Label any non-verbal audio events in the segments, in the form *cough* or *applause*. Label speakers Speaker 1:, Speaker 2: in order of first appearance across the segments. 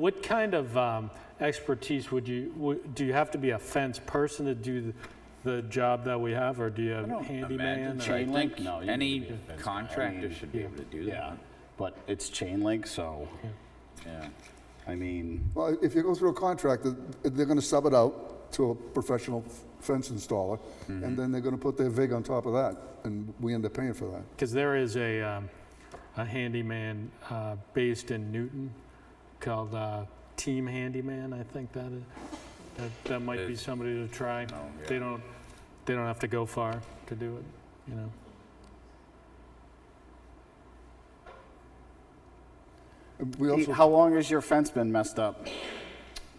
Speaker 1: What kind of um, expertise would you, would- do you have to be a fence person to do th- the job that we have, or do you have handyman?
Speaker 2: Oh, imagine
Speaker 1: or-
Speaker 2: chain-
Speaker 3: I
Speaker 2: link?
Speaker 3: think
Speaker 2: No, you need
Speaker 3: any
Speaker 2: to be a fence guy. I
Speaker 3: contractor
Speaker 2: mean,
Speaker 3: should be able to do that.
Speaker 2: Yeah, but it's chain link, so, yeah, I mean,
Speaker 4: Well, if you go through a contract, they're going to sub it out to a professional fence installer, and then they're going to put their vig on top of that, and we end up paying for that.
Speaker 1: Because there is a, um, a handyman uh, based in Newton called uh, Team Handyman, I think that is. That, that might be somebody to try. They don't, they don't have to go far to do it, you know?
Speaker 4: And We
Speaker 2: Pete,
Speaker 4: also,
Speaker 2: how long has your fence been messed up?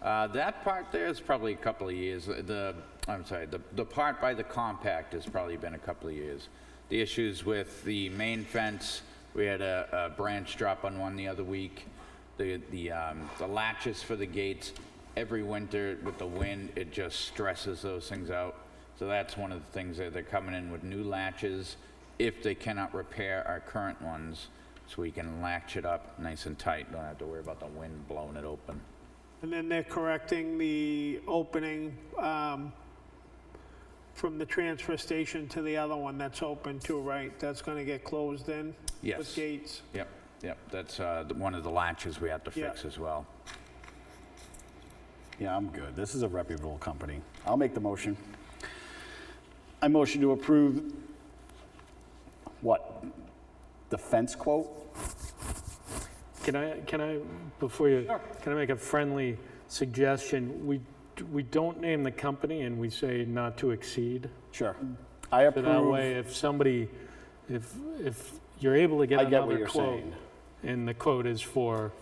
Speaker 3: Uh, That part there is probably a couple of years. The, I'm sorry, the, the part by the compact has probably been a couple of years. The issues with the main fence, we had a, a branch drop on one the other week. The, the, um, the latches for the gates, every winter with the wind, it just stresses those things out. So that's one of the things that they're coming in with new latches if they cannot repair our current ones. So we can latch it up nice and tight, don't have to worry about the wind blowing it open.
Speaker 5: And then they're correcting the opening um, from the transfer station to the other one that's open too, right? That's going to get closed in?
Speaker 3: Yes.
Speaker 5: With gates?
Speaker 3: Yep, yep, that's uh, the- one of the latches we have to
Speaker 5: Yeah.
Speaker 3: fix as well.
Speaker 2: Yeah, I'm good. This is a reputable company. I'll make the motion. I motion to approve, what? The fence quote?
Speaker 1: Can I, can I, before you, can I make a friendly suggestion? We, d- we don't name the company and we say not to exceed.
Speaker 2: Sure. I
Speaker 1: So that
Speaker 2: approve.
Speaker 1: way, if somebody, if, if you're able to get
Speaker 2: I get what
Speaker 1: another
Speaker 2: you're
Speaker 1: quote,
Speaker 2: saying.
Speaker 1: and the quote is for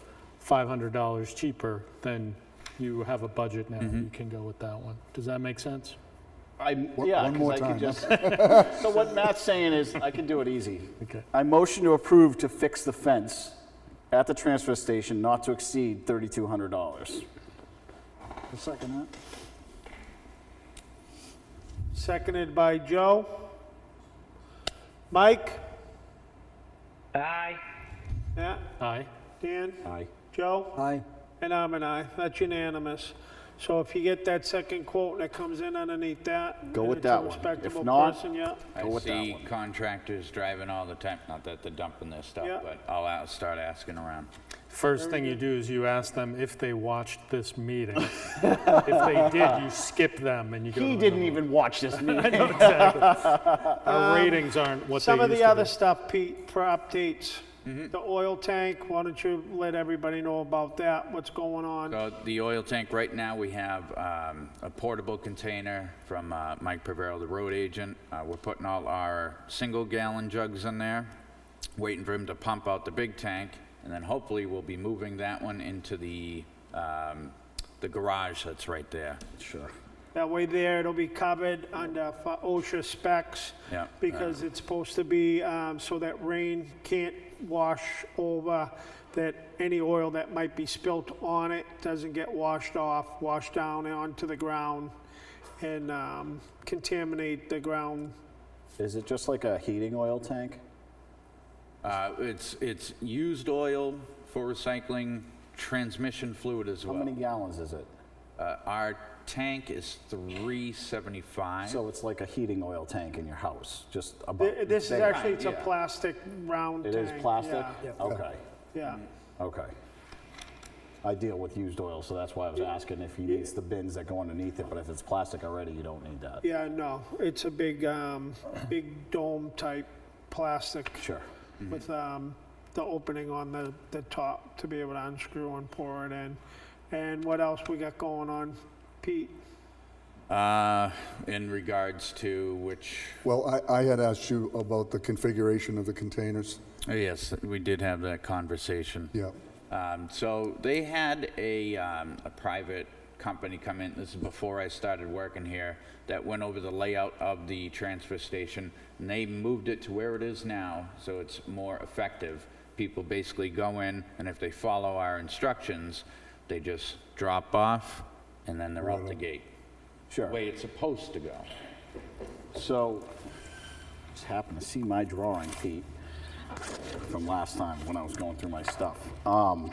Speaker 1: $500 cheaper, then you have a budget now,
Speaker 2: Mm-hmm.
Speaker 1: you can go with that one. Does that make sense?
Speaker 2: I,
Speaker 4: One-
Speaker 2: yeah,
Speaker 4: one
Speaker 2: 'cause
Speaker 4: more
Speaker 2: I
Speaker 4: time.
Speaker 2: could just.
Speaker 5: *laughs*
Speaker 2: So what Matt's saying is, I can do it easy.
Speaker 1: Okay.
Speaker 2: I motion to approve to fix the fence at the transfer station not to exceed $3,200. second
Speaker 5: Seconded by Joe. Mike?
Speaker 6: Aye.
Speaker 5: Yeah.
Speaker 1: Aye?
Speaker 5: Dan?
Speaker 2: Aye.
Speaker 5: Joe?
Speaker 2: Aye.
Speaker 5: And I'm an aye. That's unanimous. So if you get that second quote and it comes in underneath that.
Speaker 2: Go
Speaker 5: and
Speaker 2: with
Speaker 5: it's a
Speaker 2: that one. If
Speaker 5: Respectable
Speaker 2: not-
Speaker 5: person, yeah.
Speaker 3: I
Speaker 2: with that
Speaker 3: see
Speaker 2: one.
Speaker 3: contractors driving all the time, not that they're dumping their
Speaker 5: Yeah.
Speaker 3: stuff, but I'll out- start asking around.
Speaker 1: First thing you do is you ask them if they watched this
Speaker 2: *laughs*
Speaker 1: meeting. If they did, you skip them and you go to
Speaker 2: He
Speaker 1: another
Speaker 2: didn't
Speaker 1: one.
Speaker 2: even watch
Speaker 5: *laughs*
Speaker 2: this meeting.
Speaker 1: Our ratings aren't what they
Speaker 5: Some
Speaker 1: used to
Speaker 5: of
Speaker 1: be.
Speaker 5: the other stuff, Pete, for updates.
Speaker 3: Mm-hmm.
Speaker 5: The oil tank, why don't you let everybody know about that, what's going on?
Speaker 3: So the oil tank, right now, we have um, a portable container from uh, Mike Pavero, the road agent. Uh, We're putting all our single gallon jugs in there, waiting for him to pump out the big tank, and then hopefully we'll be moving that one into the, um, the garage that's right there.
Speaker 2: Sure.
Speaker 5: That way there, it'll be covered under fi- OSHA specs.
Speaker 3: Yeah.
Speaker 5: Because it's supposed to be, um, so that rain can't wash over, that any oil that might be spilt on it doesn't get washed off, washed down and onto the ground and, um, contaminate the ground.
Speaker 2: Is it just like a heating oil tank?
Speaker 3: Uh, It's, it's used oil for recycling, transmission fluid as
Speaker 2: How many
Speaker 3: well.
Speaker 2: gallons is it?
Speaker 3: Uh, Our tank is 375.
Speaker 2: So it's like a heating oil tank in your house, just about.
Speaker 5: Th- This is
Speaker 2: big.
Speaker 5: actually, it's a
Speaker 3: yeah.
Speaker 5: plastic round
Speaker 2: It is
Speaker 5: tank,
Speaker 2: plastic?
Speaker 5: yeah,
Speaker 2: Okay,
Speaker 5: Yeah.
Speaker 3: Mm.
Speaker 2: okay. I deal with used oil, so that's why I was asking if he needs the bins that go underneath it, but if it's plastic already, you don't need that.
Speaker 5: Yeah, no, it's a big, um, big dome type plastic
Speaker 2: Sure.
Speaker 5: with, um, the opening on the, the top to be able to unscrew and pour it in. And what else we got going on, Pete?
Speaker 3: Uh, In regards to which,
Speaker 4: well, I, I had asked you about the configuration of the containers.
Speaker 3: oh, yes, we did have that conversation.
Speaker 4: Yeah.
Speaker 3: Um, So they had a, um, a private company come in, this is before I started working here, that went over the layout of the transfer station, and they moved it to where it is now, so it's more effective. People basically go in, and if they follow our instructions, they just drop off, and then they're out the gate. The
Speaker 2: Sure.
Speaker 3: way it's supposed to go.
Speaker 2: So, just happened to see my drawing, Pete, from last time when I was going through my stuff. Um,